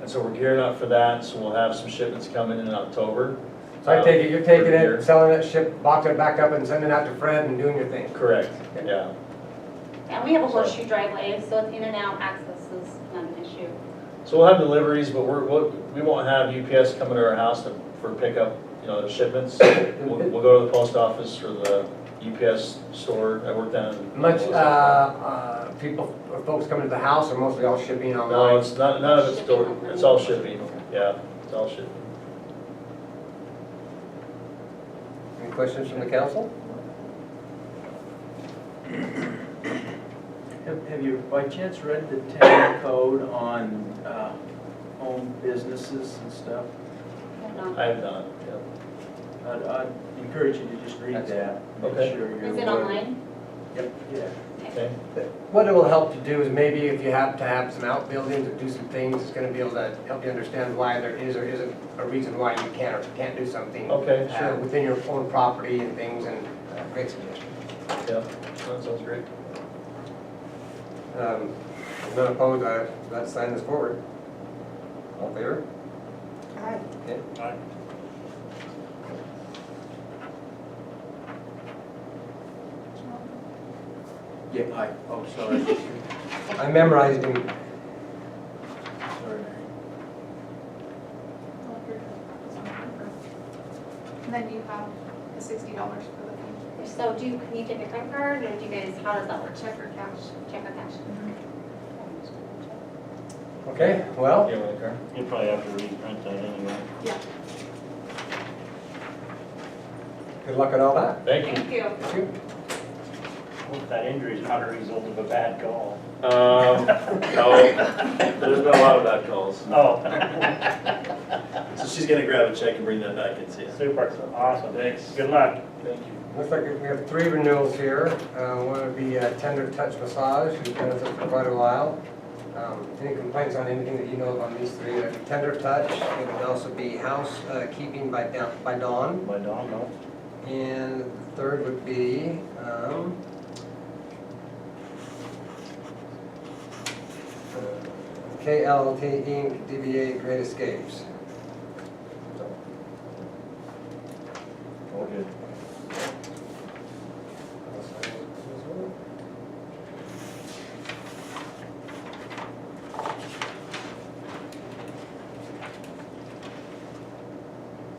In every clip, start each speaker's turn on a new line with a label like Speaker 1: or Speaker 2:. Speaker 1: And so we're gearing up for that, so we'll have some shipments coming in October.
Speaker 2: So I take it, you're taking
Speaker 1: For beer.
Speaker 2: it, selling it, ship, boxing it back up and sending it out to Fred and doing your thing.
Speaker 1: Correct, yeah.
Speaker 3: And we have a horseshoe driveway, so it's in and out, access is not an issue.
Speaker 1: So we'll have deliveries, but we're, we'll- we won't have UPS coming to our house to- for pickup, you know, shipments. We'll, we'll go to the post office or the UPS store. I work down. in-
Speaker 2: Much, uh, uh, people, or folks coming to the house are mostly all shipping
Speaker 1: No,
Speaker 2: online.
Speaker 1: it's not, none of it's door, it's all shipping, yeah, it's all shipping.
Speaker 2: Any questions from the council?
Speaker 4: Have have you by chance read the town code on uh, home businesses and stuff?
Speaker 3: I don't know.
Speaker 1: I have not, yeah.
Speaker 4: I'd I'd encourage you to just read
Speaker 2: That's-
Speaker 4: that. Make
Speaker 1: okay.
Speaker 4: sure you're
Speaker 3: Is it
Speaker 4: aware.
Speaker 3: online?
Speaker 4: Yep, yeah.
Speaker 1: okay.
Speaker 2: What it will help to do is maybe if you have to have some outbuildings or do some things, it's gonna be able to help you understand why there is or isn't a reason why you can or can't do something.
Speaker 1: Okay,
Speaker 2: uh,
Speaker 1: sure,
Speaker 2: Within your own property and things and, uh, great suggestion.
Speaker 1: yeah, that sounds great.
Speaker 2: Um, if None opposed, I, let's sign this forward. All in favor?
Speaker 5: Aye.
Speaker 2: Okay.
Speaker 6: Aye.
Speaker 4: Yeah, I, oh, sorry.
Speaker 2: I memorized him.
Speaker 4: Sorry, Mary.
Speaker 5: And then you have the sixty dollars for the thing,
Speaker 3: So do you, can you take a credit card, or do you guys, how does that work?
Speaker 5: check or cash.
Speaker 3: Check or cash?
Speaker 2: Okay, well,
Speaker 1: You want a car?
Speaker 6: You'll probably have to reprint that anyway.
Speaker 2: good luck on all that.
Speaker 1: Thank you.
Speaker 3: Thank you.
Speaker 2: Thank you.
Speaker 6: Hope that injury is not a result of a bad call.
Speaker 1: Um, no, there's been a lot of bad calls.
Speaker 6: Oh,
Speaker 1: So she's gonna grab a check and bring that back and see us.
Speaker 6: super, awesome. Thanks. Good luck.
Speaker 1: Thank you.
Speaker 2: Looks like we have three renewals here. Uh, One would be uh, Tender Touch Massage, who's been with us for quite a while. Um, Any complaints on anything that you know of on these three? It would be Tender Touch, it would also be House uh, Keeping by Dawn- by Dawn,
Speaker 6: My dog, no.
Speaker 2: and the third would be, um, uh, KLT Inc., DBA Great Escapes.
Speaker 6: All good.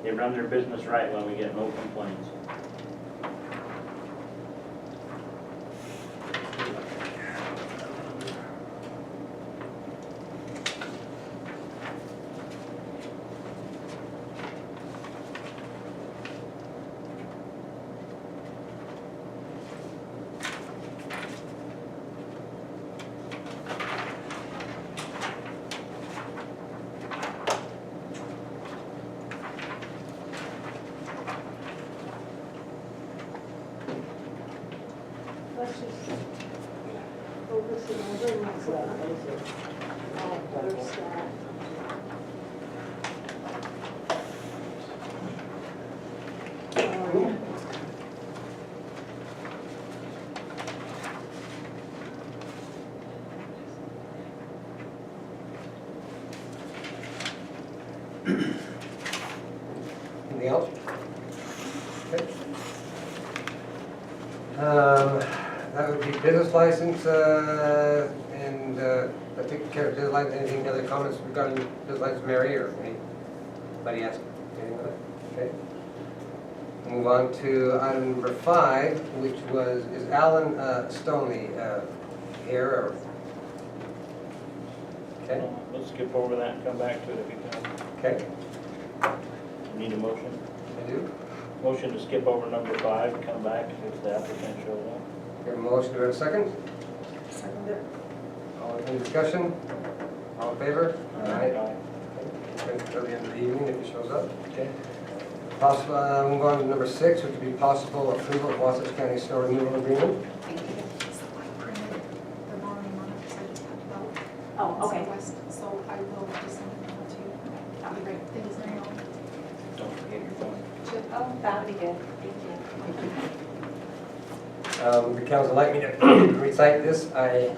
Speaker 6: They run their business right when we get no complaints.
Speaker 7: Let's just go listen to the next Better start. Um,
Speaker 2: Anything else? Okay. Um, That would be business license, uh, and uh, I think care of business license, anything other comments regarding business license, Mary, or anybody else? Anything other? Okay. Move on to item number five, which was, is Alan uh, Stoney uh, here, or? Okay,
Speaker 6: Let's skip over that and come back to it if you can.
Speaker 2: okay,
Speaker 6: Need a motion?
Speaker 2: I do.
Speaker 6: Motion to skip over number five, and come back if the applicant shows up.
Speaker 2: Your motion, do I have a second?
Speaker 7: Second it.
Speaker 2: All in discussion? All in favor?
Speaker 6: Aye.
Speaker 2: Wait Until the end of the evening if he shows up. Possible, uh, move on to number six, which would be possible approval of Wasatch County snow removal agreement.
Speaker 5: Thank you. So I printed the morning one, because I just talked about. it.
Speaker 7: Oh, okay.
Speaker 5: So I- So I will just send it out to you. That'd be great. Thanks, Mary. Ellen.
Speaker 6: Don't forget your phone.
Speaker 5: Chip,
Speaker 7: Oh, that'd be good, thank you.
Speaker 2: Um, The council like me to recite this. I